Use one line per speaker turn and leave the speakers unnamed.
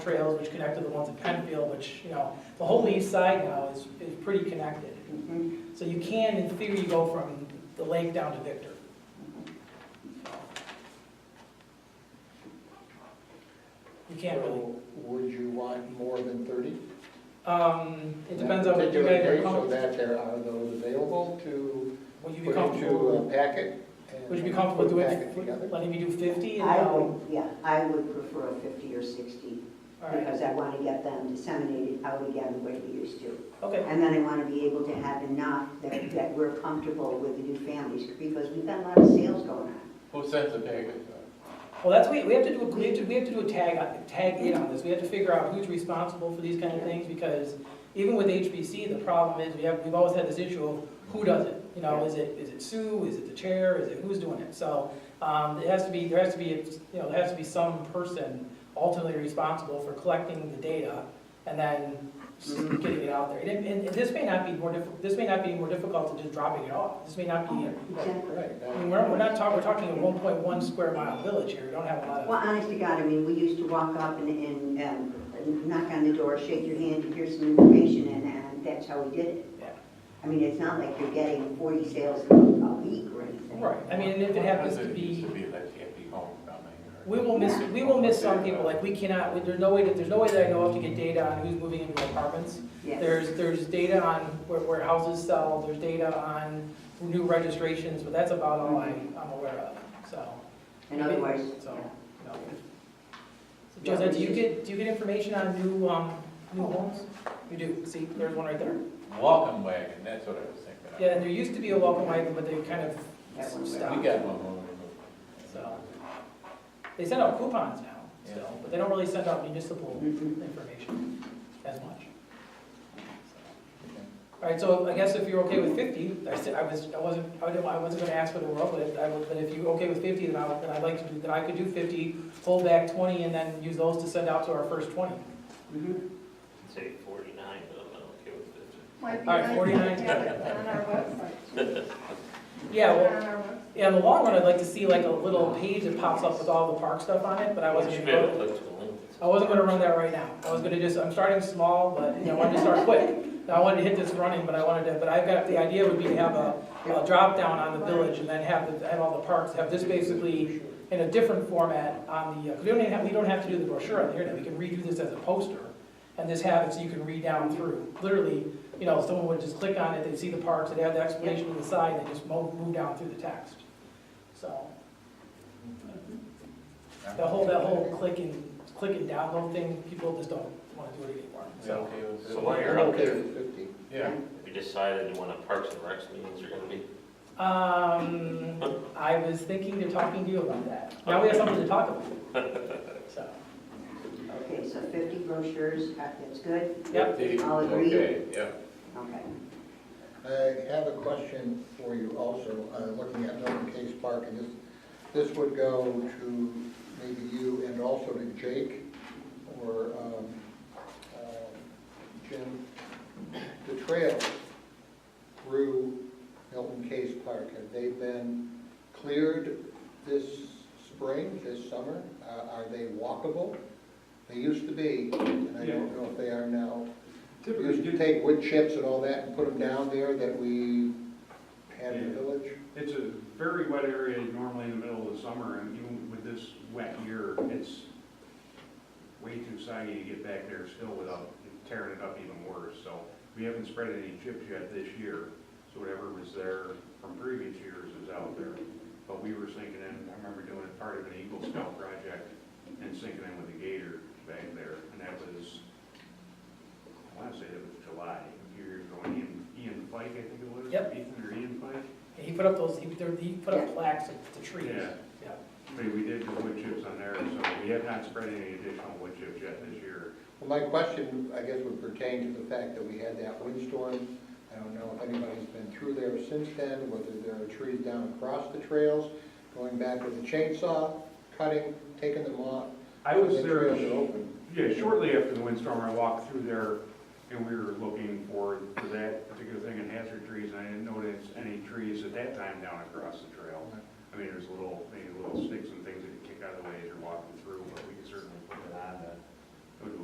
trails which connect to the ones at Penfield, which, you know, the whole east side now is, is pretty connected.
Mhm.
So you can, in theory, go from the lake down to Victor. You can't really,
So Would you want more than thirty?
um, it depends on what you guys are
So
comfortable,
that there are those available to
would you be
put into
comfortable,
a packet? and
would you be comfortable
put a
doing,
packet together?
letting me do fifty? and
I
then-
would, yeah, I would prefer a 50 or 60,
All right,
because I want to get them disseminated out again the way we used to.
okay,
And then I want to be able to have enough that, that we're comfortable with the new families, because we've got a lot of sales going on.
Who sent the packet?
well, that's, we, we have to do, a- we have to, we have to do a tag, on- tag in on this, we have to figure out who's responsible for these kind of things, because even with HBC, the problem is, we have, we've always had this issue of who does it? You know, is it, is it Sue, is it the chair, is it, who's doing it? So, um, it has to be, there has to be, you know, there has to be some person ultimately responsible for collecting the data and then getting it out there. And, it- and this may not be more diff, this may not be more difficult than just dropping it off. This may not be,
Exactly.
Right,
I
now,
mean, we're, we're not talking, we're talking a one point one square mile village here, we don't have a lot
Well,
of.
honest to God, I mean, we used to walk up and, and um, knock on the door, shake your hand, and here's some information, and, and that's how we did it.
Yeah.
I mean, it's not like you're getting 40 sales a week or anything.
Right, I mean, and if it happens to
It used
be,
to be like happy homecoming or.
we will miss, we will miss some people, like, we cannot, we- there's no way, that there's no way that I know of to get data on who's moving into apartments.
Yes.
There's, there's data on where, where houses sell, there's data on new registrations, but that's about all I, I'm aware of, so,
And otherwise,
So-
yeah.
you know. So Josette, do you get, do you get information on new, um, new homes? You do, see, there's one right there.
Welcome wagon, that's what I was thinking. of.
Yeah, and there used to be a welcome wagon, but they kind of
That one's
stopped.
We got one when we moved.
So. They send out coupons now, still, but they don't really send out municipal
Mhm.
information as much. All right, so I guess if you're okay with fifty, I said, I was, I wasn't, I didn't- I wasn't gonna ask for the world, but if, I was- but if you're okay with fifty, then I, would- then I'd like to do, then I could do fifty, hold back twenty, and then use those to send out to our first twenty.
Mhm.
Say forty-nine, but I'm not okay with fifty.
Might be
All right,
nice to
49.
have it on our website.
Yeah,
On
well,
our website.
yeah, in the long run, I'd like to see like a little page that pops up with all the park stuff on it, but I wasn't.
You should be
gonna-
able to click to the link.
I wasn't gonna run that right now. I was gonna just, I'm starting small, but, you know, I wanted to start quick. I wanted to hit this running, but I wanted to, but I've got, the idea would be to have a, a drop down on the village and then have, the- have all the parks, have this basically in a different format on the, uh, 'cause we don't even have, we don't have to do the brochure on the internet, we can redo this as a poster. And just have it so you can read down through. Literally, you know, someone would just click on it, they'd see the parks, they'd have the explanation on the side, and they just move, move down through the text. So, the whole, that whole click and, click and download thing, people just don't wanna do it anymore,
We
so.
okay with
So while
it?
you're
I'm
out
okay
there,
with fifty.
Yeah.
we decided when the Parks and Recs meetings are gonna be.
Um, I was thinking of talking to you about that. Now we have something to talk about. So,
Okay, so 50 brochures, uh, that's good,
Yep.
Fifty,
I'll agree.
Okay, yeah.
okay.
I have a question for you also, uh, looking at Milton Case Park, and this, this would go to maybe you and also to Jake or um, uh, Jim. The trail through Milton Case Park, have they been cleared this spring, this summer? Uh, Are they walkable? They used to be, and I don't know if they are now. We used to take wood chips and all that and put them down there that we had in the village.
It's a very wet area normally in the middle of the summer, and even with this wet year, it's way too soggy to get back there still without tearing it up even worse. So we haven't spread any chips yet this year, so whatever was there from previous years is out there. But we were sinking in, I remember doing it part of an Eagle Scout project and sinking in with a gator back there, and that was, I wanna say that was July, a few years ago, Ian, Ian Pike, I think it was.
Yep.
Ethan or Ian Pike?
he put up those, he, there- he put up plaques of the trees.
Yeah.
Yeah.
I mean, we did the wood chips on there, so we have not spread any additional wood chips yet this year.
Well, my question, I guess, would pertain to the fact that we had that windstorm. I don't know if anybody's been through there since then, whether there are trees down across the trails, going back with a chainsaw, cutting, taking them off.
I was
The
there,
trails are open.
yeah, shortly after the windstorm, I walked through there and we were looking for, for that particular thing in hazard trees, and I didn't notice any trees at that time down across the trail. I mean, there's little, maybe little sticks and things that you kick out of the way as you're walking through, but we can certainly put it on to